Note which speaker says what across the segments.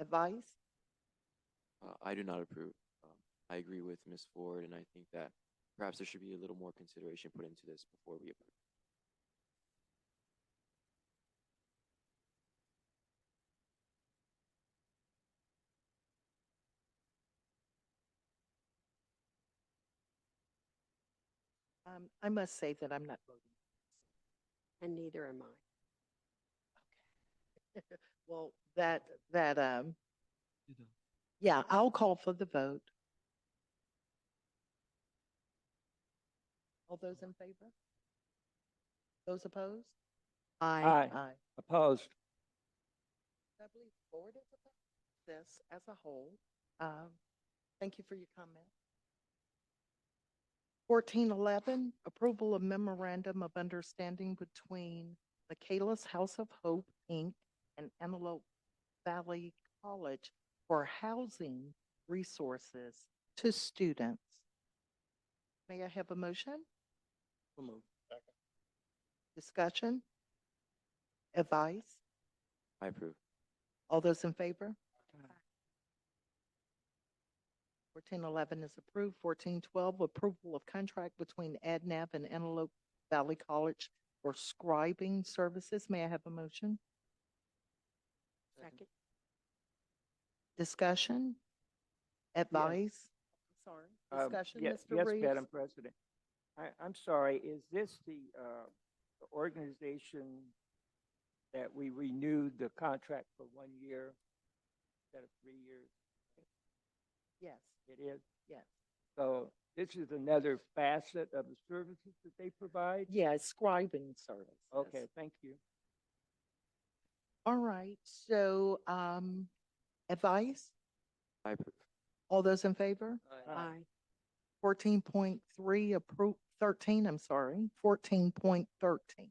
Speaker 1: advice?
Speaker 2: Uh, I do not approve. Um, I agree with Ms. Ford, and I think that perhaps there should be a little more consideration put into this before we approve.
Speaker 1: Um, I must say that I'm not voting.
Speaker 3: And neither am I.
Speaker 1: Well, that, that, um, yeah, I'll call for the vote. All those in favor? Those opposed?
Speaker 4: Aye.
Speaker 1: Aye.
Speaker 4: Opposed?
Speaker 1: I believe the board is opposed to this as a whole. Um, Thank you for your comment. Fourteen eleven, approval of memorandum of understanding between Michaela's House of Hope, Inc. and Antelope Valley College for housing resources to students. May I have a motion? Discussion? Advice?
Speaker 2: I approve.
Speaker 1: All those in favor? Fourteen eleven is approved. Fourteen twelve, approval of contract between ADNAP and Antelope Valley College for scribing services. May I have a motion?
Speaker 3: Second.
Speaker 1: Discussion? Advice? Sorry.
Speaker 4: Um,
Speaker 1: Discussion,
Speaker 4: yes-
Speaker 1: Mr.
Speaker 4: Yes, Madam
Speaker 1: Reeves?
Speaker 4: President. I, I'm sorry, is this the, uh, the organization that we renewed the contract for one year instead of three years?
Speaker 1: Yes,
Speaker 4: It is?
Speaker 1: yes.
Speaker 4: So this is another facet of the services that they provide?
Speaker 1: Yeah, scribing service.
Speaker 4: Okay, thank you.
Speaker 1: All right, so, um, advice?
Speaker 2: I approve.
Speaker 1: All those in favor?
Speaker 4: Aye.
Speaker 3: Aye.
Speaker 1: Fourteen point three, appro, thirteen, I'm sorry, fourteen point thirteen.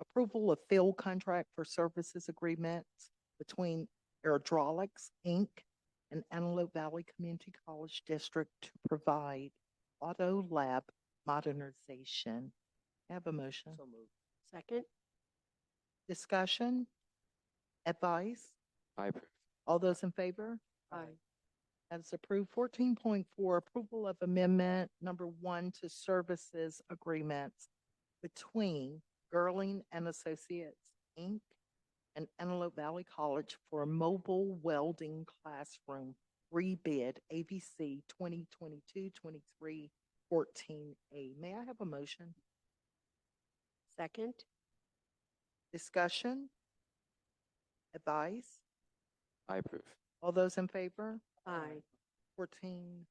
Speaker 1: Approval of field contract for services agreements between Aerodrolics, Inc. and Antelope Valley Community College District to provide auto lab modernization. Have a motion.
Speaker 4: So moved.
Speaker 3: Second.
Speaker 1: Discussion? Advice?
Speaker 2: I approve.
Speaker 1: All those in favor?
Speaker 3: Aye.
Speaker 1: That is approved. Fourteen point four, approval of amendment number one to services agreements between Gerling and Associates, Inc. and Antelope Valley College for a mobile welding classroom rebid ABC 2022-23 A. May I have a motion?
Speaker 3: Second.
Speaker 1: Discussion? Advice?
Speaker 2: I approve.
Speaker 1: All those in favor?
Speaker 3: Aye.
Speaker 1: Fourteen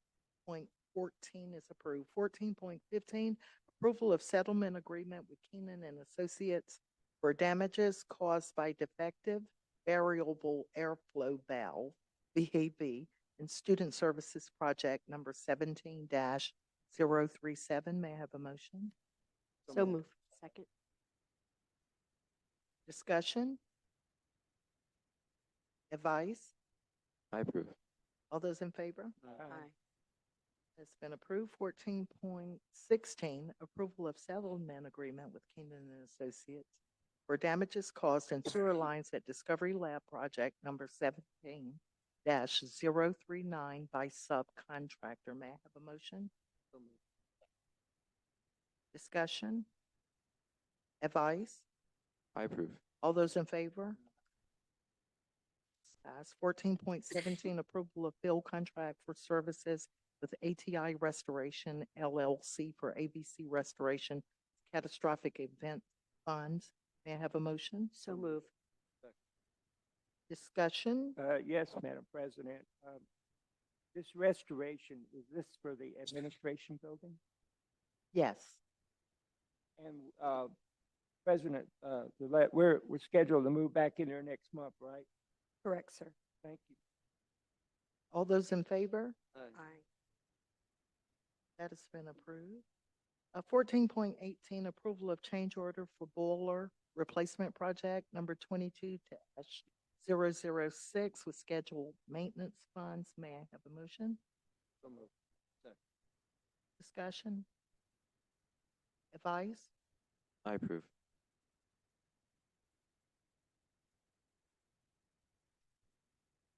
Speaker 1: point fourteen is approved. Fourteen point fifteen, approval of settlement agreement with Keenan and Associates for damages caused by defective variable airflow valve, VAV, in Student Services Project Number seventeen 37 May I have a motion?
Speaker 3: So moved. Second.
Speaker 1: Discussion? Advice?
Speaker 2: I approve.
Speaker 1: All those in favor?
Speaker 3: Aye.
Speaker 1: It's been approved. Fourteen point sixteen, approval of settlement agreement with Keenan and Associates for damages caused in sewer lines at Discovery Lab Project Number seventeen 39 by subcontractor. May I have a motion? Discussion? Advice?
Speaker 2: I approve.
Speaker 1: All those in favor? Ayes. Fourteen point seventeen, approval of bill contract for services with ATI Restoration LLC for ABC Restoration Catastrophic Event Funds. May I have a motion?
Speaker 3: So moved.
Speaker 1: Discussion?
Speaker 4: Uh, yes, Madam President. Um, this restoration, is this for the administration building?
Speaker 1: Yes.
Speaker 4: And, uh, President, uh, Gillette, we're, we're scheduled to move back in there next month, right?
Speaker 3: Correct, sir.
Speaker 4: Thank you.
Speaker 1: All those in favor?
Speaker 3: Aye.
Speaker 1: That has been approved. Uh, fourteen point eighteen, approval of change order for boiler replacement project number twenty-two 6 with scheduled maintenance funds. May I have a motion?
Speaker 4: So moved.
Speaker 1: Discussion? Advice?
Speaker 2: I approve.